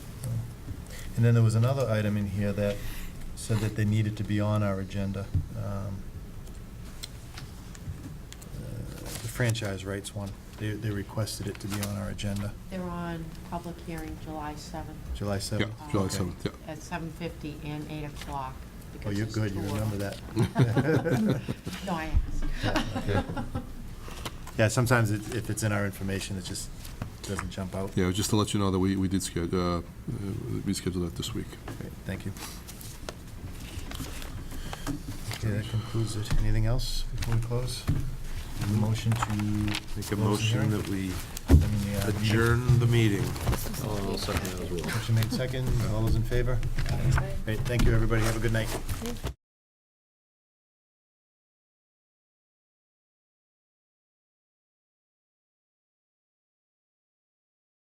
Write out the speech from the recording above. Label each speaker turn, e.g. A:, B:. A: And then there was another item in here that said that they needed to be on our agenda. um, uh, The franchise rights one, they, they requested it to be on our agenda,
B: They're on public hearing July 7th.
A: July
C: Yeah,
A: 7th.
C: July
A: Okay.
C: 7th, yeah.
B: At 7:50 and 8 o'clock.
A: Oh,
B: because
A: you're
B: it's
A: good, you
B: two of
A: remember
B: them.
A: that.
B: No, I
C: Okay.
B: asked.
A: Yeah, sometimes it- if it's in our information, it just doesn't jump out.
C: Yeah, just to let you know that we, we did schedule, uh, uh, we scheduled that this week.
A: Great, Thank you. Okay, that concludes it. Anything else before we close? Motion to.
D: Mm-hmm. Make a
A: close the hearing?
D: motion that we
A: I mean, uh,
D: adjourn the meeting.
E: I'll second that as well.
A: Motion made second. All those in favor? Great, thank you, everybody. Have a good night.